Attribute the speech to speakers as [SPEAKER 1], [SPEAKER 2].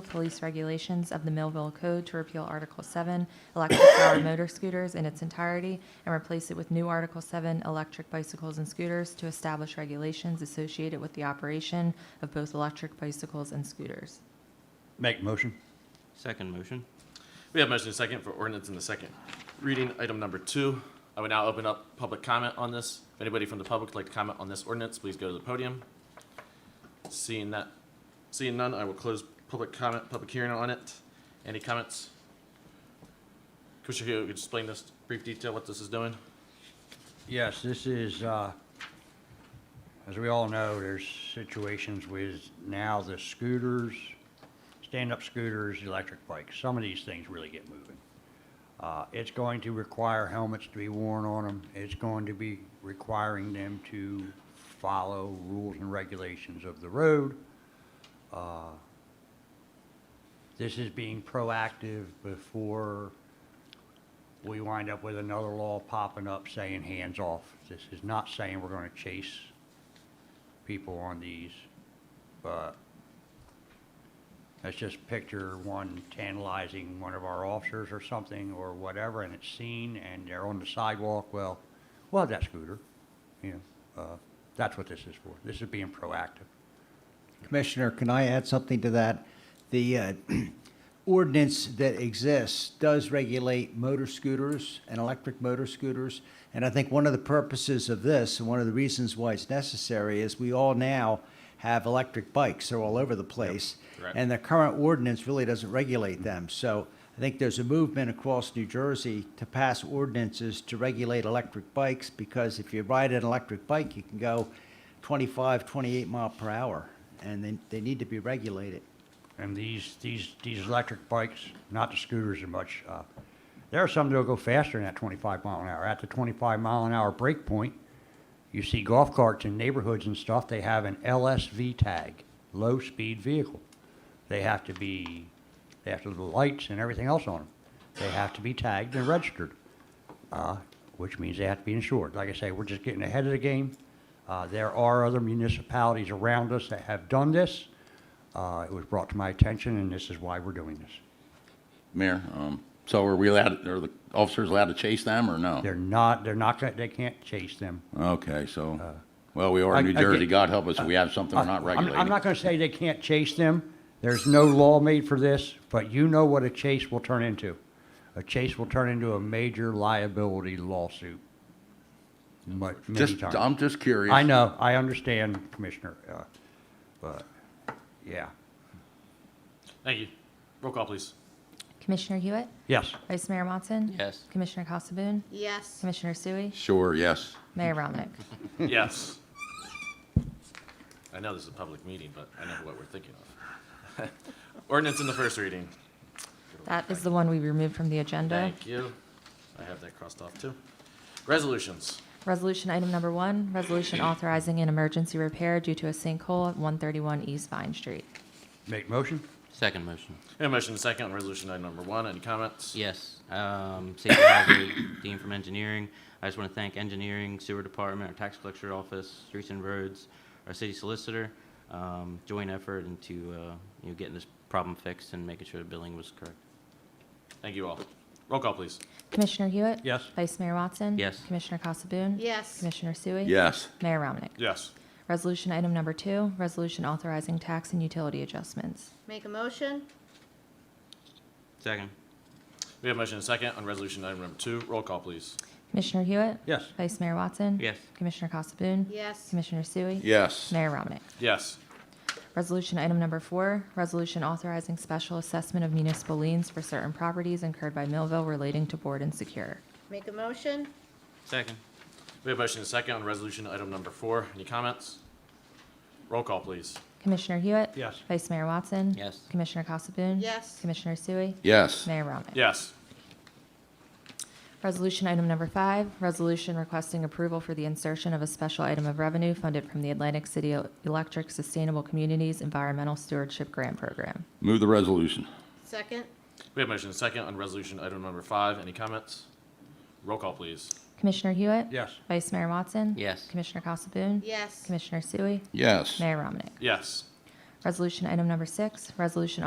[SPEAKER 1] Police Regulations of the Millville Code to repeal Article 7, electric powered motor scooters in its entirety, and replace it with new Article 7, electric bicycles and scooters to establish regulations associated with the operation of both electric bicycles and scooters.
[SPEAKER 2] Make motion.
[SPEAKER 3] Second motion.
[SPEAKER 4] We have motion and second for ordinance in the second reading, item number two. I would now open up public comment on this. If anybody from the public would like to comment on this ordinance, please go to the podium. Seeing that, seeing none, I will close public comment, public hearing on it. Any comments? Commissioner Hill, could you explain this brief detail, what this is doing?
[SPEAKER 2] Yes, this is, uh, as we all know, there's situations with now the scooters, stand-up scooters, electric bikes. Some of these things really get moving. Uh, It's going to require helmets to be worn on them. It's going to be requiring them to follow rules and regulations of the road. Uh, This is being proactive before we wind up with another law popping up saying hands off. This is not saying we're gonna chase people on these, but let's just picture one tantalizing one of our officers or something or whatever, and it's seen and they're on the sidewalk, well, we'll have that scooter, you know, uh, that's what this is for. This is being proactive.
[SPEAKER 5] Commissioner, can I add something to that? The uh, ordinance that exists does regulate motor scooters and electric motor scooters. And I think one of the purposes of this, and one of the reasons why it's necessary, is we all now have electric bikes. They're all over the place.
[SPEAKER 4] correct.
[SPEAKER 5] And the current ordinance really doesn't regulate them. So I think there's a movement across New Jersey to pass ordinances to regulate electric bikes because if you ride an electric bike, you can go 25, 28 mile per hour, and they, they need to be regulated.
[SPEAKER 2] And these, these, these electric bikes, not the scooters as much, uh, there are some that'll go faster than that twenty-five mile an hour. At the twenty-five mile an hour break point, you see golf carts in neighborhoods and stuff, they have an LSV tag, low-speed vehicle. They have to be, they have to have the lights and everything else on them. They have to be tagged and registered, uh, which means they have to be insured. Like I say, we're just getting ahead of the game. Uh, there are other municipalities around us that have done this. Uh, It was brought to my attention, and this is why we're doing this.
[SPEAKER 6] Mayor, um, so are we allowed, are the officers allowed to chase them or no?
[SPEAKER 2] They're not, they're not, gonna- they can't chase them.
[SPEAKER 6] Okay, so, well, we are in
[SPEAKER 2] Uh, I-
[SPEAKER 6] New
[SPEAKER 2] I get- Uh,
[SPEAKER 6] Jersey, God help us if we have something we're
[SPEAKER 2] I'm-
[SPEAKER 6] not
[SPEAKER 2] I'm
[SPEAKER 6] regulating.
[SPEAKER 2] not going to say they can't chase them. There's no law made for this, but you know what a chase will turn into. A chase will turn into a major liability lawsuit. Mu- Many
[SPEAKER 6] Just,
[SPEAKER 2] times.
[SPEAKER 6] I'm just curious.
[SPEAKER 2] I know, I understand, Commissioner, uh, but, yeah.
[SPEAKER 4] Thank you. Roll call, please.
[SPEAKER 1] Commissioner Hewitt?
[SPEAKER 2] Yes,
[SPEAKER 1] Vice Mayor Watson?
[SPEAKER 3] Yes.
[SPEAKER 1] Commissioner Casabun?
[SPEAKER 7] Yes.
[SPEAKER 1] Commissioner Sui?
[SPEAKER 6] Sure, yes.
[SPEAKER 1] Mayor Ramnick?
[SPEAKER 4] Yes. I know this is a public meeting, but I know what we're thinking of. Ordinance in the first reading.
[SPEAKER 1] That is the one we removed from the agenda.
[SPEAKER 4] Thank you. I have that crossed off too. Resolutions.
[SPEAKER 1] Resolution item number one, resolution authorizing an emergency repair due to a sinkhole at 131 East Vine Street.
[SPEAKER 2] make motion?
[SPEAKER 3] Second motion.
[SPEAKER 4] We have a motion and a second on resolution item number one. Any comments?
[SPEAKER 3] Yes. Um, Safety Hazard, Dean from Engineering. I just want to thank Engineering, Sewer Department, our Tax Collector Office, Streets and Roads, our City Solicitor, um, joint effort into, uh, you know, getting this problem fixed and making sure the billing was correct.
[SPEAKER 4] Thank you all. Roll call, please.
[SPEAKER 1] Commissioner Hewitt?
[SPEAKER 2] Yes.
[SPEAKER 1] Vice Mayor Watson?
[SPEAKER 3] Yes.
[SPEAKER 1] Commissioner Casabun?
[SPEAKER 7] Yes.
[SPEAKER 1] Commissioner Sui?
[SPEAKER 6] Yes,
[SPEAKER 1] Mayor Ramnick?
[SPEAKER 4] Yes.
[SPEAKER 1] Resolution item number two, resolution authorizing tax and utility adjustments.
[SPEAKER 7] Make a motion?
[SPEAKER 3] Second.
[SPEAKER 4] We have a motion and a second on resolution item number two. Roll call, please.
[SPEAKER 1] Commissioner Hewitt?
[SPEAKER 2] Yes.
[SPEAKER 1] Vice Mayor Watson?
[SPEAKER 3] Yes.
[SPEAKER 1] Commissioner Casabun?
[SPEAKER 7] Yes.
[SPEAKER 1] Commissioner Sui?
[SPEAKER 6] yes.
[SPEAKER 1] Mayor Ramnick?
[SPEAKER 4] Yes.
[SPEAKER 1] Resolution item number four, resolution authorizing special assessment of municipal liens for certain properties incurred by Millville relating to board and secure.
[SPEAKER 7] Make a motion?
[SPEAKER 3] Second.
[SPEAKER 4] We have a motion and a second on resolution item number four. Any comments? Roll call, please.
[SPEAKER 1] Commissioner Hewitt?
[SPEAKER 2] Yes.
[SPEAKER 1] Vice Mayor Watson?
[SPEAKER 3] Yes.
[SPEAKER 1] Commissioner Casabun?
[SPEAKER 7] Yes.
[SPEAKER 1] Commissioner Sui?
[SPEAKER 6] Yes,
[SPEAKER 1] Mayor Ramnick?
[SPEAKER 4] Yes.
[SPEAKER 1] Resolution item number five, resolution requesting approval for the insertion of a special item of revenue funded from the Atlantic City Electric Sustainable Communities Environmental Stewardship Grant Program.
[SPEAKER 6] move the resolution.
[SPEAKER 7] Second?
[SPEAKER 4] We have a motion and a second on resolution item number five. Any comments? Roll call, please.
[SPEAKER 1] Commissioner Hewitt?
[SPEAKER 2] Yes.
[SPEAKER 1] Vice Mayor Watson?
[SPEAKER 3] Yes.
[SPEAKER 1] Commissioner Casabun?
[SPEAKER 7] Yes.
[SPEAKER 1] Commissioner Sui?
[SPEAKER 6] Yes.
[SPEAKER 1] Mayor Ramnick?
[SPEAKER 4] Yes.
[SPEAKER 1] Resolution item number six, resolution